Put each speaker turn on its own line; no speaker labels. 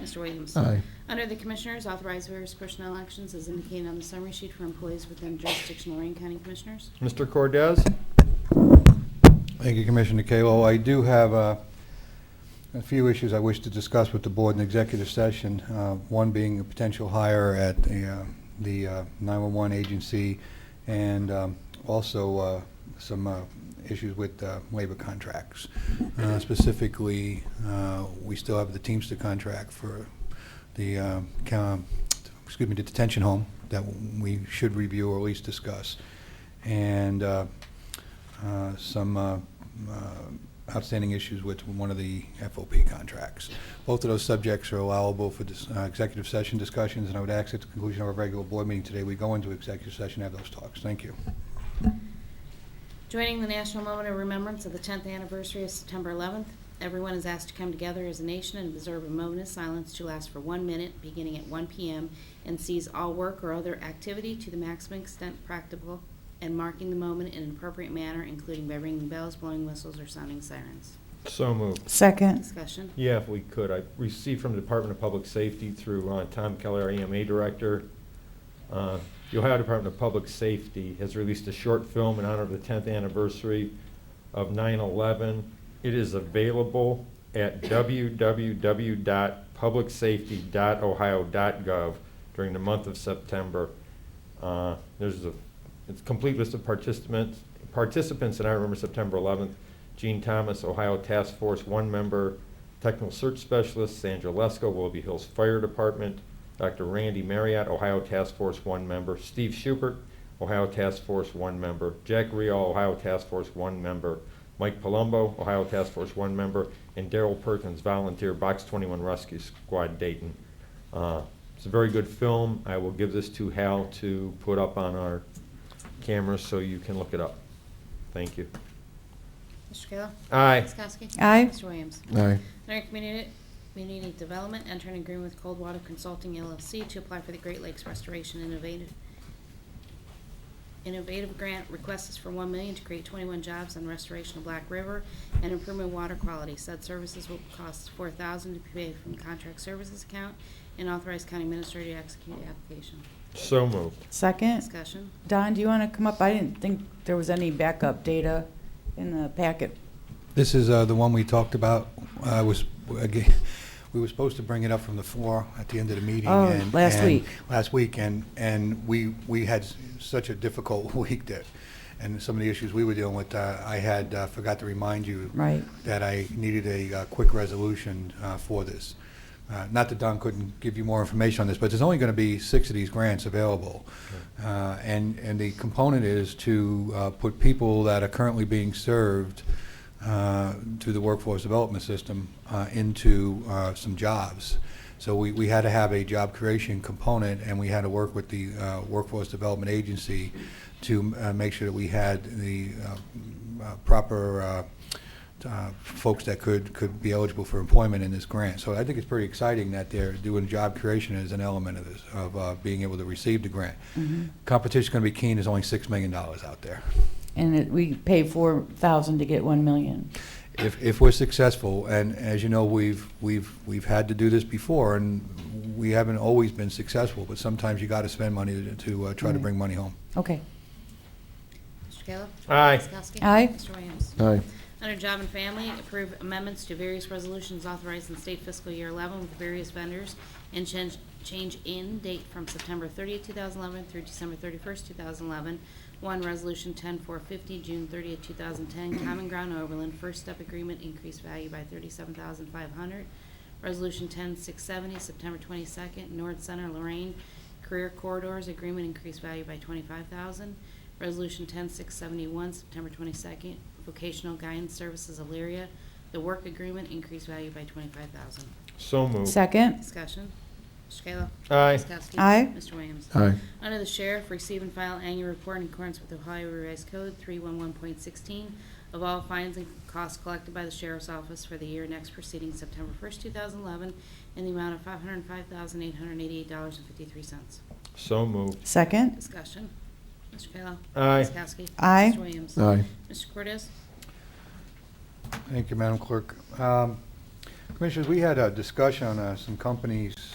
Mr. Williams.
Uh-huh.
Aye.
Under the Commissioners, authorize various personnel actions as indicated on the summary sheet for employees within jurisdiction of Lorraine County Commissioners.
Mr. Cordez?
Thank you, Commissioner Kalo. I do have uh, a few issues I wish to discuss with the board in executive session, uh, one being a potential hire at the, uh, the uh, 911 agency, and um, also uh, some uh, issues with uh, labor contracts. Uh, Specifically, uh, we still have the Teamster contract for the, uh, coun- excuse me, the detention home that we should review or at least discuss. And uh, uh, some uh, uh, outstanding issues with one of the FOP contracts. Both of those subjects are allowable for dis- uh, executive session discussions, and I would ask at the conclusion of our regular board meeting today, we go into executive session and have those talks. Thank you.
Joining the National Moment of Remembrance of the 10th anniversary of September 11th, everyone is asked to come together as a nation and observe a moment of silence to last for one minute, beginning at 1 p.m., and seize all work or other activity to the maximum extent practicable, and marking the moment in an appropriate manner, including by ringing bells, blowing whistles, or sounding sirens.
So moved.
Second.
Discussion.
Yeah, if we could, I received from the Department of Public Safety through uh, Tom Keller, EMA Director. Uh, The Ohio Department of Public Safety has released a short film in honor of the 10th anniversary of 9/11. It is available at www.publicsafety.ohio.gov during the month of September. Uh, There's a, it's a complete list of participants, participants, and I remember September 11th, Gene Thomas, Ohio Task Force, one member, Technical Search Specialist, Sandra Lesko, Willoughby Hills Fire Department, Dr. Randy Marriott, Ohio Task Force, one member, Steve Schubert, Ohio Task Force, one member, Jack Rial, Ohio Task Force, one member, Mike Palumbo, Ohio Task Force, one member, and Daryl Perkins, volunteer, Box 21 Rescue Squad, Dayton. Uh, It's a very good film. I will give this to Hal to put up on our cameras so you can look it up. Thank you.
Mr. Kayla?
Aye.
Ms. Kowski?
Aye.
Mr. Williams?
Aye.
Under Community, Community Development, enter an agreement with Coldwater Consulting LLC to apply for the Great Lakes Restoration Innovative, Innovative Grant. Request is for one million to create twenty-one jobs on restoration of Black River and improvement of water quality. Said services will cost four thousand to be paid from contract services account and authorize county administrator to execute the application.
So moved.
Second.
Discussion.
Don, do you want to come up? I didn't think there was any backup data in the packet.
This is uh, the one we talked about. I was, again, we were supposed to bring it up from the floor at the end of the meeting.
Oh,
and-
last
and-
week.
Last week, and, and we, we had s- such a difficult week that, and some of the issues we were dealing with, uh, I had, uh, forgot to remind you
Right.
that I needed a uh, quick resolution uh, for this. Uh, Not that Don couldn't give you more information on this, but there's only going to be six of these grants available. Uh, And, and the component is to uh, put people that are currently being served uh, through the workforce development system uh, into uh, some jobs. So we, we had to have a job creation component, and we had to work with the uh, Workforce Development Agency to uh, make sure that we had the uh, uh, proper uh, uh, folks that could, could be eligible for employment in this grant. So I think it's pretty exciting that they're doing job creation as an element of this, of uh, being able to receive the grant. Competition's going to be keen, there's only $6 million out there.
And it, we pay four thousand to get one million.
If, if we're successful, and as you know, we've, we've, we've had to do this before, and we haven't always been successful, but sometimes you got to spend money to- to uh, try to
Right.
bring money home.
Okay.
Mr. Kayla?
Aye.
Ms. Kowski?
Aye.
Mr. Williams?
Aye.
Under Job and Family, approve amendments to various resolutions authorized in state fiscal year 11 with various vendors and change, change in date from September 30th, 2011 through December 31st, 2011. One, Resolution 10450, June 30th, 2010, Common Ground Overland, First Step Agreement, increased value by 37500 Resolution 10670, September 22nd, North Center, Lorraine, Career Corridors Agreement increased value by 25000 Resolution 10671, September 22nd, Vocational Guidance Services Elyria, the work agreement increased value by 25000
So moved.
Second.
Discussion. Mr. Kayla?
Aye.
Ms. Kowski?
Aye.
Mr. Williams?
Aye.
Under the Sheriff, receive and file annual report in accordance with Ohio Revised Code 311.16 of all fines and costs collected by the Sheriff's Office for the year next preceding September 1st, 2011, in the amount of $505,888.53.
So moved.
Second.
Discussion. Mr. Kayla?
Aye.
Ms. Kowski?
Aye.
Mr. Williams?
Aye.
Mr. Cortez?
Thank you, Madam Clerk. Um, Commissioners, we had a discussion on uh, some companies